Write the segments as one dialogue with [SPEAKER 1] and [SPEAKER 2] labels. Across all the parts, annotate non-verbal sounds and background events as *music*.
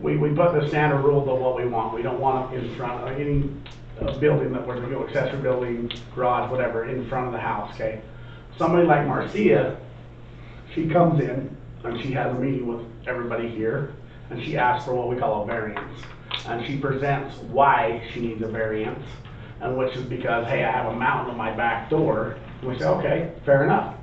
[SPEAKER 1] we, we put the standard rules of what we want. We don't want it in front of any uh, building that we're gonna go accessory building, garage, whatever, in front of the house, okay? Somebody like Marcia, she comes in and she has a meeting with everybody here and she asks for what we call a variance. And she presents why she needs a variance and which is because, hey, I have a mountain in my back door. We say, okay, fair enough.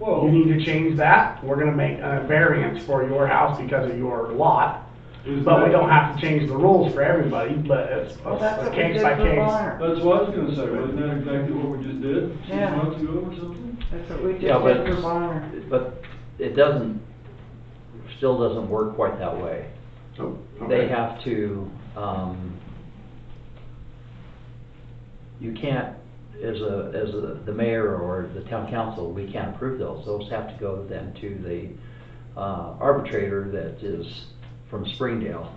[SPEAKER 1] You
[SPEAKER 2] Well,
[SPEAKER 1] need to change that. We're gonna make a variance for your house because of your lot.
[SPEAKER 2] is
[SPEAKER 1] But we
[SPEAKER 2] that,
[SPEAKER 1] don't have to change the rules for everybody, but it's
[SPEAKER 3] Well, that's
[SPEAKER 1] a
[SPEAKER 3] what we
[SPEAKER 1] case
[SPEAKER 3] did
[SPEAKER 1] by
[SPEAKER 3] for
[SPEAKER 1] case.
[SPEAKER 3] Bonner.
[SPEAKER 2] that's what I was gonna say, wasn't that exactly what we just did? Six
[SPEAKER 3] Yeah.
[SPEAKER 2] months ago or something?
[SPEAKER 3] That's what we just did
[SPEAKER 4] Yeah, but-
[SPEAKER 3] for Bonner.
[SPEAKER 4] But it doesn't, still doesn't work quite that way.
[SPEAKER 1] Oh,
[SPEAKER 4] They
[SPEAKER 1] okay.
[SPEAKER 4] have to, um, you can't, as a, as a, the mayor or the town council, we can't approve those. Those have to go then to the uh, arbitrator that is from Springdale.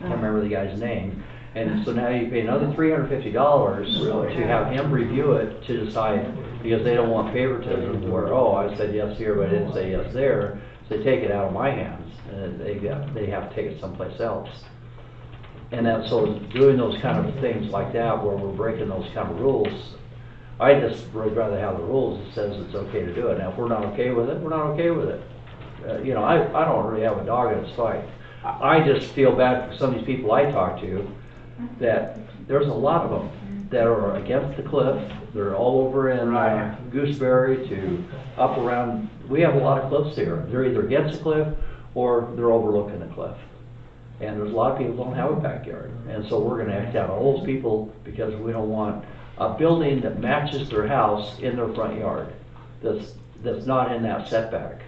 [SPEAKER 4] I can't remember the guy's name. And so now you pay another three hundred fifty dollars
[SPEAKER 2] Really?
[SPEAKER 4] to have him review it to decide, because they don't want favoritism where, oh, I said yes here, but I didn't say yes there. So they take it out of my hands and they got, they have to take it someplace else. And that, so doing those kind of things like that where we're breaking those kind of rules, I just would rather have the rules that says it's okay to do it. Now, if we're not okay with it, we're not okay with it. Uh, you know, I, I don't really have a dog in this fight. I I just feel bad for some of these people I talk to, that there's a lot of them that are against the cliff. They're all over in
[SPEAKER 1] Right.
[SPEAKER 4] uh, Gooseberry to up around, we have a lot of cliffs here. They're either against the cliff or they're overlooking the cliff. And there's a lot of people don't have a backyard, and so we're gonna act out on all those people because we don't want a building that matches their house in their front yard, that's, that's not in that setback.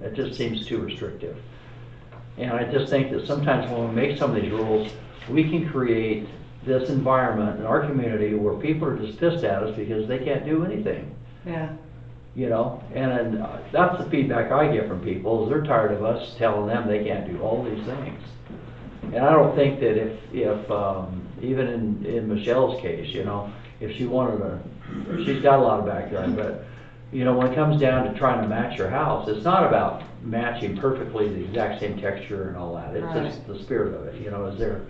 [SPEAKER 4] That just seems too restrictive. And I just think that sometimes when we make some of these rules, we can create this environment in our community where people are just pissed at us because they can't do anything
[SPEAKER 3] Yeah,
[SPEAKER 4] you know, and uh, that's the feedback I get from people, is they're tired of us telling them they can't do all these things. And I don't think that if, if, um, even in, in Michelle's case, you know, if she wanted to, she's got a lot of backyard, but, you know, when it comes down to trying to match your house, it's not about matching perfectly the exact same texture and all that, it's just the spirit of it, you know, is there,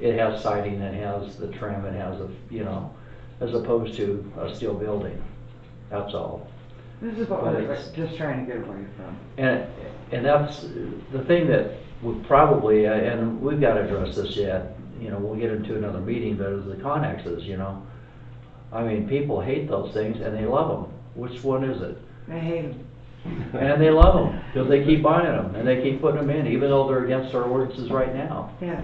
[SPEAKER 4] it has siding, it has the trim, it has a, you know, as opposed to a steel building, that's all.
[SPEAKER 3] this is what
[SPEAKER 4] But
[SPEAKER 3] we're
[SPEAKER 4] it's-
[SPEAKER 3] just trying to get away from.
[SPEAKER 4] And, and that's the thing that would probably, uh, and we've got to address this yet, you know, we'll get into another meeting, but it's the connexes, you know? I mean, people hate those things and they love them. Which one is it?
[SPEAKER 3] I hate him.
[SPEAKER 4] And they love them because they keep buying them and they keep putting them in, even though they're against our ordinances right now.
[SPEAKER 3] Yes.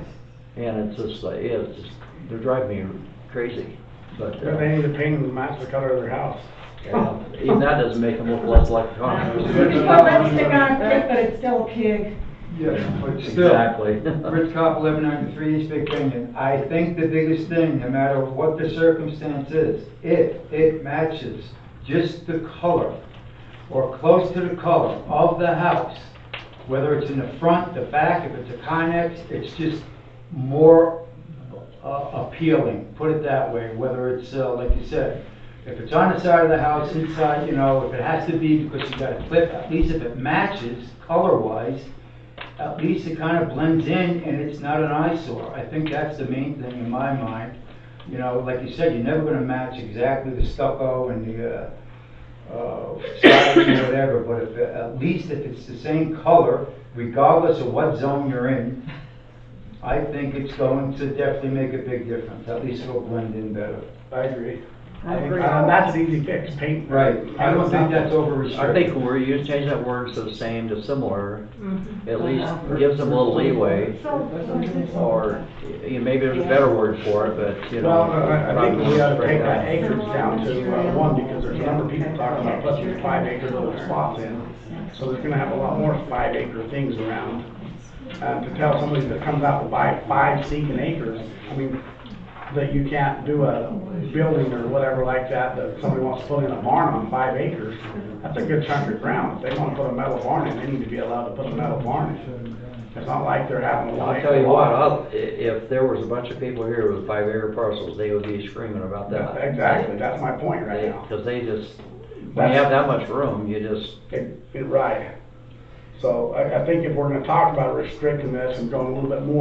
[SPEAKER 4] And it's just like, yeah, it's just, they're driving me crazy. But,
[SPEAKER 1] But
[SPEAKER 4] uh,
[SPEAKER 1] They need to paint and match the color of their house.
[SPEAKER 4] yeah, even that doesn't make them look less like a
[SPEAKER 5] You
[SPEAKER 4] connex.
[SPEAKER 5] put lipstick on a pig, but it's still a pig.
[SPEAKER 6] Yeah, *laughs* but still,
[SPEAKER 4] Exactly.
[SPEAKER 6] Rich Cop, eleven ninety-three, East Big Canyon. I think the biggest thing, no matter what the circumstance is, if it matches just the color or close to the color of the house, whether it's in the front, the back, if it's a Connex, it's just more uh, appealing, put it that way, whether it's, uh, like you said, if it's on the side of the house, inside, you know, if it has to be because you got a clip, at least if it matches color-wise, at least it kind of blends in and it's not an eyesore. I think that's the main thing in my mind. You know, like you said, you're never gonna match exactly the stucco and the, uh, uh, siding or whatever, but if, at least if it's the same color, regardless of what zone you're in, I think it's going to definitely make a big difference. At least it'll blend in better.
[SPEAKER 1] I agree.
[SPEAKER 3] I agree.
[SPEAKER 1] Uh, that's an easy fix, paint.
[SPEAKER 6] I don't think that's over
[SPEAKER 4] I
[SPEAKER 6] restricted.
[SPEAKER 4] think where you change that word to the same to similar, at least gives them a little leeway, or, you know, maybe there's a better word for it, but, you know.
[SPEAKER 1] Well, I I think we ought to
[SPEAKER 4] probably
[SPEAKER 1] take
[SPEAKER 4] not
[SPEAKER 1] that acreage down to uh, one, because there's a number of people talking about putting five acre little spots in. So there's gonna have a lot more five acre things around. Uh, to tell somebody that comes out to buy five seeking acres, I mean, that you can't do a building or whatever like that, that somebody wants to put in a barn on five acres, that's a good chunk of ground. If they wanna put a metal barn in, they need to be allowed to put a metal barn in. It's not like they're having a
[SPEAKER 4] Well,
[SPEAKER 1] lot.
[SPEAKER 4] I'll tell you what, I'll, i- if there was a bunch of people here with five acre parcels, they would be screaming about that.
[SPEAKER 1] Exactly, that's my point right now.
[SPEAKER 4] Because they just, when you have that much room, you just,
[SPEAKER 1] It, it, right. So I, I think if we're gonna talk about restricting this and going a little bit more